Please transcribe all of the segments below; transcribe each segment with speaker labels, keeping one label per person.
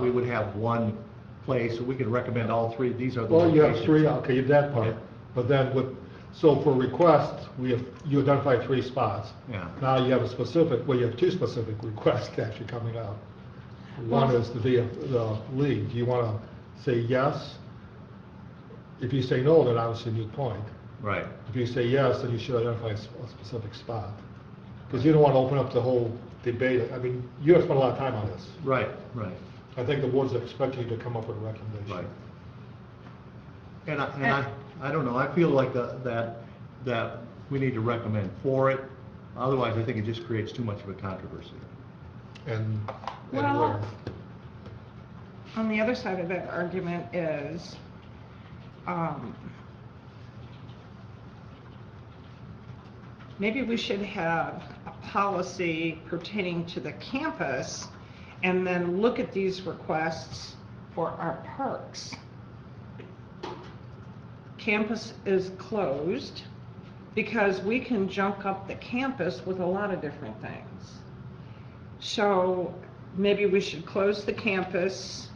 Speaker 1: we would have one place, so we could recommend all three, these are the
Speaker 2: Well, you have
Speaker 1: locations.
Speaker 2: three, okay, that part,
Speaker 1: Okay.
Speaker 2: but then with, so for requests, we have, you identify three spots.
Speaker 1: Yeah.
Speaker 2: Now you have a specific, well, you have two specific requests actually coming out. One
Speaker 3: Well-
Speaker 2: is the, VF the league, you wanna say yes? If you say no, then obviously new point.
Speaker 1: Right,
Speaker 2: If you say yes, then you should identify a s- a specific spot, because you don't wanna open up the whole debate, I mean, you have spent a lot of time on this.
Speaker 1: right, right,
Speaker 2: I think the board's expecting you to come up with a recommendation.
Speaker 1: right. And I, and I, I don't know, I feel like the- that, that we need to recommend for it, otherwise I think it just creates too much of a controversy.
Speaker 2: And, and
Speaker 3: Well-
Speaker 2: where.
Speaker 3: On the other side of that argument is, um, maybe we should have a policy pertaining to the campus and then look at these requests for our parks. Campus is closed because we can junk up the campus with a lot of different things. So maybe we should close the campus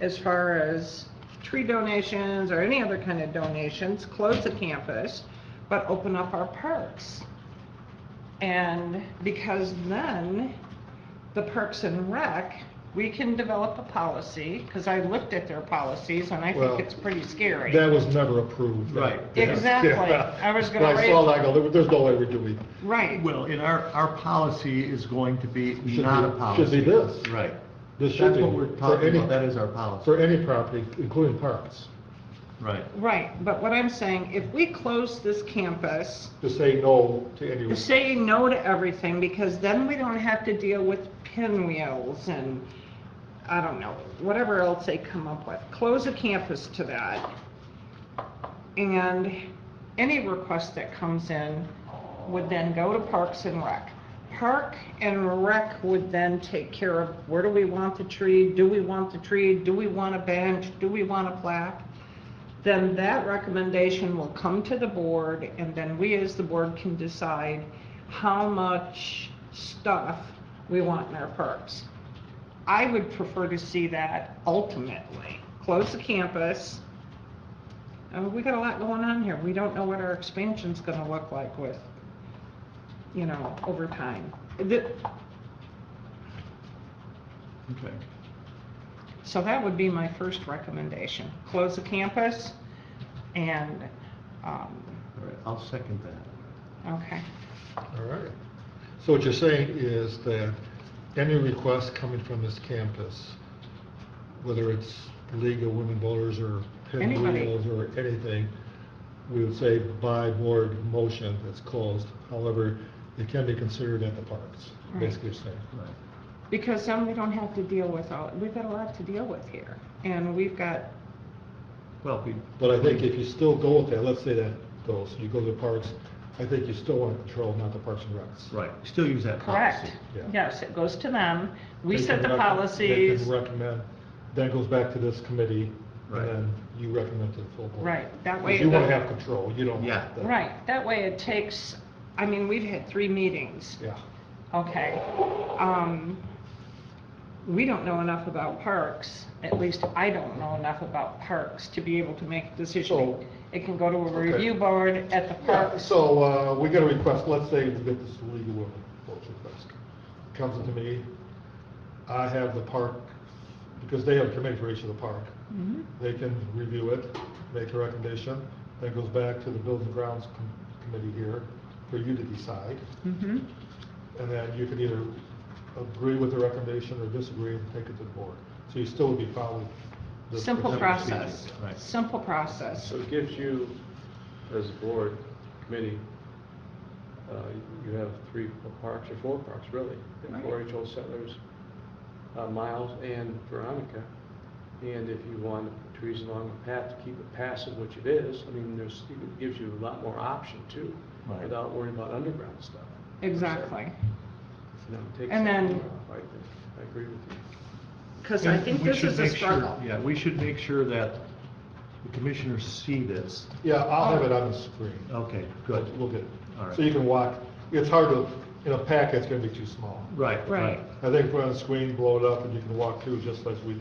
Speaker 3: as far as tree donations or any other kind of donations, close the campus, but open up our parks. And because then the Parks and Rec, we can develop a policy, because I looked at their policies and I
Speaker 2: Well,
Speaker 3: think it's pretty scary.
Speaker 2: That was never approved.
Speaker 1: Right.
Speaker 3: Exactly. I was gonna
Speaker 2: When I saw
Speaker 3: raise-
Speaker 2: that, I go, "There- there's no way we're doing.
Speaker 3: Right.
Speaker 1: Well, and our, our policy is going to be
Speaker 2: Should
Speaker 1: not a
Speaker 2: be-
Speaker 1: policy.
Speaker 2: should be this.
Speaker 1: Right.
Speaker 2: This should
Speaker 1: That's
Speaker 2: be
Speaker 1: what we're
Speaker 2: for
Speaker 1: talking
Speaker 2: any-
Speaker 1: about, that is our policy.
Speaker 2: For any property, including parks,
Speaker 1: Right,
Speaker 3: Right, but what I'm saying, if we close this campus,
Speaker 2: to say no to any.
Speaker 3: say no to everything because then we don't have to deal with pinwheels and, I don't know, whatever else they come up with. Close a campus to that. And any request that comes in would then go to Parks and Rec. Park and Rec would then take care of where do we want the tree? Do we want the tree? Do we want a bench? Do we want a plaque? then that recommendation will come to the board, and then we as the board can decide how much stuff we want in our parks. I would prefer to see that ultimately, close the campus. I mean, we got a lot going on here, we don't know what our expansion's gonna look like with, you know, over time. The-
Speaker 1: okay.
Speaker 3: So that would be my first recommendation, close the campus, and, um,
Speaker 1: All right, I'll second that.
Speaker 3: Okay,
Speaker 2: All right. So what you're saying is that any request coming from this campus, whether it's League of Women Voters or
Speaker 3: Anybody.
Speaker 2: Pinwheels or anything, we would say by board motion, it's closed. However, it can be considered at the parks,
Speaker 3: Right.
Speaker 2: basically saying.
Speaker 1: Right.
Speaker 3: because then we don't have to deal with all, we've got a lot to deal with here, and we've got,
Speaker 1: Well, we.
Speaker 2: But I think if you still go with that, let's say that goes, you go to the parks, I think you still want to control, not the parks and recs.
Speaker 1: Right, still use that policy.
Speaker 3: correct?
Speaker 2: Yeah.
Speaker 3: Yes, it goes to them, we
Speaker 2: They can
Speaker 3: set the
Speaker 2: rec- They
Speaker 3: policies,
Speaker 2: can recommend, then it goes back to this committee,
Speaker 1: Right.
Speaker 2: and then you recommend to the full board.
Speaker 3: right, that way.
Speaker 2: Because you
Speaker 3: it
Speaker 2: want to
Speaker 3: doesn't-
Speaker 2: have control, you don't.
Speaker 1: Yeah.
Speaker 2: the-
Speaker 3: Right, that way it takes, I mean, we've had three meetings,
Speaker 2: Yeah.
Speaker 3: okay? Um, we don't know enough about parks, at least I don't know enough about parks to be able to make a
Speaker 2: So-
Speaker 3: decision. It can go to a
Speaker 2: Okay.
Speaker 3: review board at the
Speaker 2: Yeah,
Speaker 3: parks.
Speaker 2: so, uh, we got a request, let's say we get this legal women votes request, comes into me, I have the park, because they have a committee for each of the park.
Speaker 3: Mhm.
Speaker 2: They can review it, make a recommendation, then it goes back to the Buildings and Grounds Com- Committee here for you to decide.
Speaker 3: Mhm.
Speaker 2: And then you can either agree with the recommendation or disagree and take it to the board. So you still would be following. the-
Speaker 3: Simple
Speaker 2: the
Speaker 3: process,
Speaker 2: procedure.
Speaker 1: right.
Speaker 3: simple process.
Speaker 4: So it gives you, as a board, committee, uh, you have three parks, or four parks, really,
Speaker 3: Right.
Speaker 4: 4-H Old Settlers, uh, Miles and Veronica. And if you want trees along the path to keep it passive, which it is, I mean, there's, it gives you a lot more option too,
Speaker 1: Right.
Speaker 4: without worrying about underground stuff.
Speaker 3: Exactly.
Speaker 4: You know, it takes
Speaker 3: And
Speaker 4: that
Speaker 3: then-
Speaker 4: off, I think. I agree with you.
Speaker 3: Because I think
Speaker 1: We
Speaker 3: this
Speaker 1: should
Speaker 3: is a
Speaker 1: make sure-
Speaker 3: struggle.
Speaker 1: Yeah, we should make sure that the commissioners see this.
Speaker 3: Oh.
Speaker 2: Yeah, I'll have it on the screen.
Speaker 1: Okay, good.
Speaker 2: We'll get it.
Speaker 1: All right.
Speaker 2: So you can walk, it's hard to in a packet, it's gonna be too small.
Speaker 1: Right.
Speaker 3: Right.
Speaker 2: I think put on a screen, blow it up, and you can walk through just like we